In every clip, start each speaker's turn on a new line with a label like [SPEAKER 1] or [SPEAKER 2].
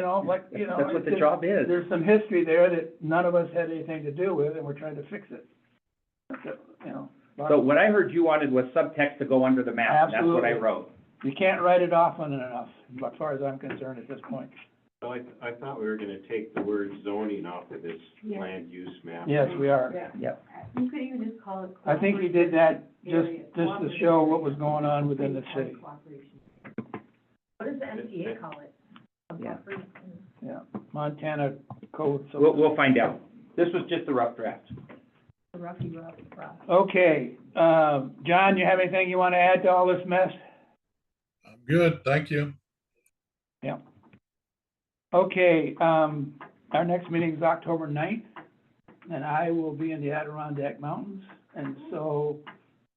[SPEAKER 1] know, but, you know.
[SPEAKER 2] That's what the
[SPEAKER 1] it's-
[SPEAKER 2] job is.
[SPEAKER 1] There's some history there that none of us had anything to do with, and we're trying to fix it. That's it, You know,
[SPEAKER 2] So what I heard you wanted was subtext to go under the map, and that's what I
[SPEAKER 1] Absolutely.
[SPEAKER 2] wrote.
[SPEAKER 1] you can't write it off on enough, as far as I'm concerned at this point.
[SPEAKER 3] So I, I thought we were gonna take the word zoning off of this
[SPEAKER 4] Yeah.
[SPEAKER 3] land use map.
[SPEAKER 1] Yes, we are.
[SPEAKER 4] Yeah.
[SPEAKER 2] Yep.
[SPEAKER 4] You could even just call it.
[SPEAKER 1] I think we did that just,
[SPEAKER 4] cooperative
[SPEAKER 1] just to
[SPEAKER 4] area,
[SPEAKER 1] show what was
[SPEAKER 4] cooperative
[SPEAKER 1] going on within the
[SPEAKER 4] area,
[SPEAKER 1] city,
[SPEAKER 4] cooperation. What does the MTA call it? A
[SPEAKER 2] Yeah.
[SPEAKER 4] cooperation.
[SPEAKER 1] yeah. Montana code. so-
[SPEAKER 2] We'll, we'll find out. This was just a rough draft.
[SPEAKER 4] The roughy rough, rough.
[SPEAKER 1] Okay, um, John, you have anything you wanna add to all this mess?
[SPEAKER 5] I'm good, thank you.
[SPEAKER 1] Okay, um, our next meeting is October ninth, and I will be in the Adirondack Mountains. And so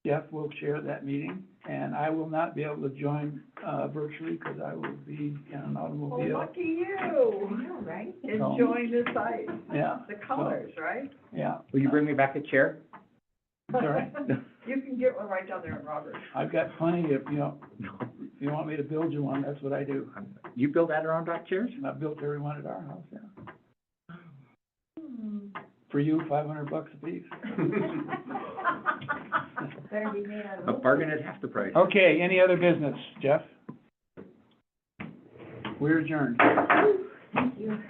[SPEAKER 1] Jeff will chair that meeting, and I will not be able to join, uh, virtually because I will be in an
[SPEAKER 6] Well,
[SPEAKER 4] Oh,
[SPEAKER 1] automobile.
[SPEAKER 6] lucky you,
[SPEAKER 4] I know, right?
[SPEAKER 6] enjoying the sight,
[SPEAKER 1] Yeah,
[SPEAKER 6] the colors, right?
[SPEAKER 1] yeah.
[SPEAKER 2] Will you bring me back a chair?
[SPEAKER 1] Sorry?
[SPEAKER 6] You can get one right down there in Robert.
[SPEAKER 1] I've got plenty of, you know, if you want me to build you one, that's what I do.
[SPEAKER 2] You build Adirondack chairs?
[SPEAKER 1] And I built every one at our house, yeah. Hmm. For you, five hundred bucks a piece.
[SPEAKER 4] Better be made out of.
[SPEAKER 2] A bargain at half the price.
[SPEAKER 1] Okay, any other business, Jeff? We're adjourned.
[SPEAKER 4] Thank you.